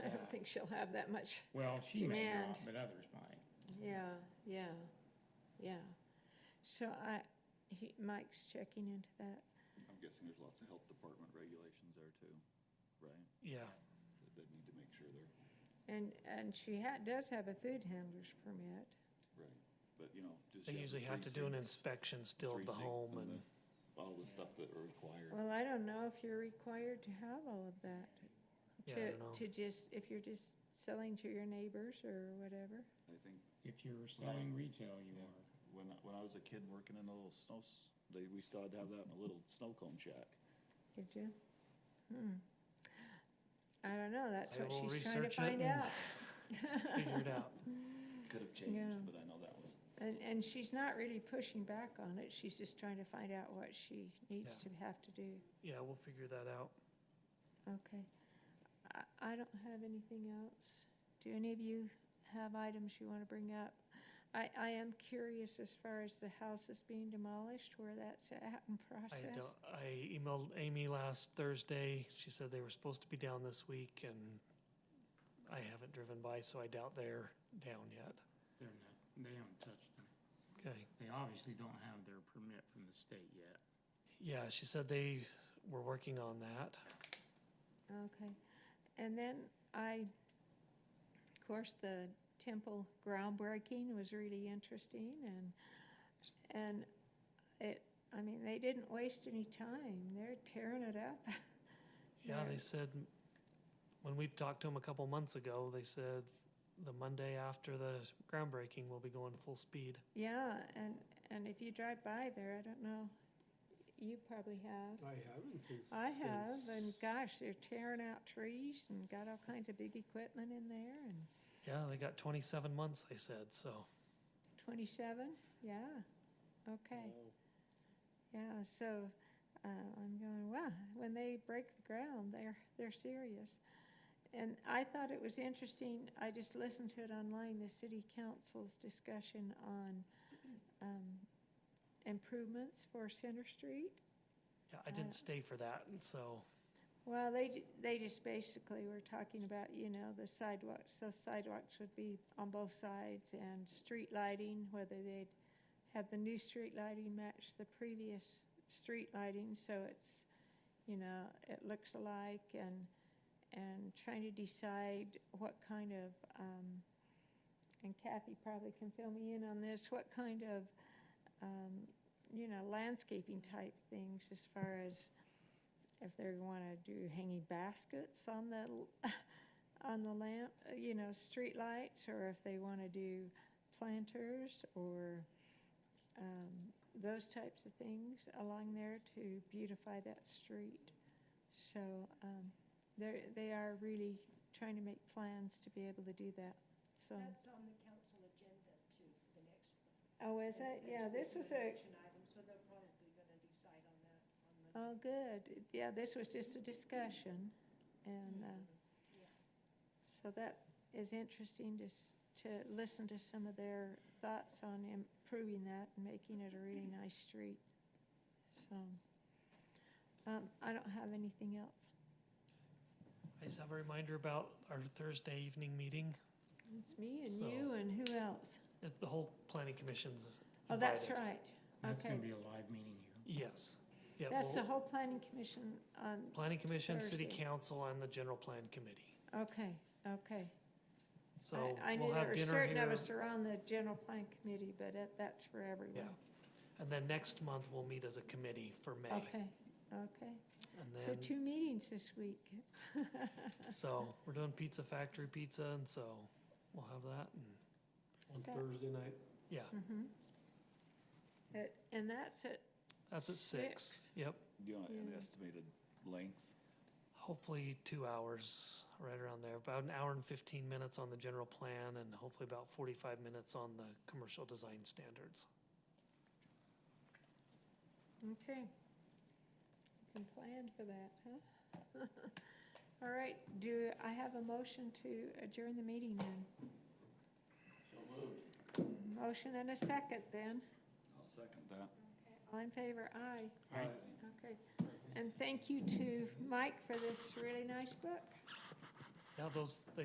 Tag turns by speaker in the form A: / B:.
A: think she'll have that much,
B: Well, she may
A: Demand.
B: not, but others might.
C: Mm-hmm.
A: yeah, yeah, yeah. So I, he- Mike's checking into that.
D: I'm guessing there's lots of health department regulations there too, right?
C: Yeah,
D: That they need to make sure they're,
A: And, and she ha, does have a food handler's permit.
D: right, but you know, just.
C: they
D: you
C: usually
D: the
C: have to
D: three
C: do an
D: sinks-
C: inspection still
D: three
C: of the
D: sinks
C: home and,
D: the- All the stuff that are required.
A: Well, I don't know if you're required to have all of that.
C: yeah, I
A: To,
C: don't know.
A: to just, if you're just selling to your neighbors or whatever.
D: I think
B: If you're
D: Well,
B: selling retail, you
D: yeah.
B: are.
D: when, I- when I was a kid working in a little snow, s- they, we still had to have that in a little snow cone shack.
A: Did you? Hmm. I don't know, that's
C: I
A: what
C: will
A: she's trying to
C: research it
A: find
C: and-
A: out.
C: Figure it out.
D: Could have
A: Yeah.
D: changed, but I know that was,
A: And, and she's not really pushing back on it, she's just trying to find out what she needs to have to do.
C: Yeah, we'll figure that out.
A: Okay. I, I don't have anything else. Do any of you have items you want to bring up? I, I am curious as far as the houses being demolished, where that's at in
C: I
A: process.
C: don't, I emailed Amy last Thursday. She said they were supposed to be down this week and I haven't driven by, so I doubt they're down yet.
B: They're not, they haven't touched them.
C: Okay.
B: They obviously don't have their permit from the state yet.
C: Yeah, she said they were working on that.
A: Okay. And then I, of course, the temple groundbreaking was really interesting and, and it, I mean, they didn't waste any time. They're tearing it up.
C: Yeah,
A: They're-
C: they said, when we talked to them a couple months ago, they said the Monday after the groundbreaking, we'll be going full speed.
A: Yeah, and, and if you drive by there, I don't know, you probably have.
E: I haven't since.
A: I have, and
E: since-
A: gosh, they're tearing out trees and got all kinds of big equipment in there and
C: Yeah, they got twenty-seven months, they said, so.
A: twenty-seven, yeah, okay.
E: Wow.
A: Yeah, so uh, I'm going, wow, when they break the ground, they're, they're serious. And I thought it was interesting, I just listened to it online, the city council's discussion on um, improvements for Center Street.
C: Yeah, I
A: Uh,
C: didn't stay for that, so,
A: Well, they, ju- they just basically were talking about, you know, the sidewalks, the sidewalks would be on both sides and street lighting, whether they'd have the new street lighting match the previous street lighting, so it's, you know, it looks alike and, and trying to decide what kind of, um, and Kathy probably can fill me in on this, what kind of, um, you know, landscaping type things as far as, if they want to do hanging baskets on the, l- on the lamp, uh, you know, street lights, or if they want to do planters or um, those types of things along there to beautify that street. So um, they're, they are really trying to make plans to be able to do that, so.
F: That's on the council agenda too, the next one.
A: Oh, is it?
F: It's
A: Yeah, this was a,
F: action item, so they're probably gonna decide on that on Monday.
A: oh, good. Yeah, this was just a discussion and, uh,
F: Yeah.
A: So that is interesting to, s- to listen to some of their thoughts on improving that and making it a really nice street. So, um, I don't have anything else.
C: I just have a reminder about our Thursday evening meeting.
A: It's me and
C: So-
A: you and who else?
C: It's the whole planning commission's
A: Oh, that's
C: invited.
A: right.
B: That's gonna
A: Okay.
B: be a live meeting here.
C: Yes. Yeah,
A: That's the
C: well,
A: whole planning commission on,
C: planning commission, city
A: Thursday.
C: council, and the general plan committee.
A: okay, okay.
C: So
A: I, I knew
C: we'll
A: there
C: have
A: were
C: dinner
A: certain of
C: here.
A: us are on the general plan committee, but that, that's for
C: Yeah.
A: everyone.
C: And then next month, we'll meet as a committee for May.
A: Okay, okay.
C: And
A: So
C: then,
A: two meetings this week.
C: so we're doing Pizza Factory Pizza, and so we'll have that. And
E: On
A: So-
E: Thursday night,
C: yeah,
A: Mhm. It- Uh, And that's at
C: that's at six.
A: Six.
C: Yep.
D: you know, an
A: Yeah.
D: estimated length.
C: Hopefully two hours, right around there, about an hour and fifteen minutes on the general plan and hopefully about forty-five minutes on the commercial design standards.
A: Okay. You can plan for that, huh? All right, do I have a motion to adjourn the meeting then? So moved. Motion and a second then.
D: I'll second that.
A: All in favor, aye.
B: I-
A: Okay. And thank you to Mike for this really nice book.
C: Now, those,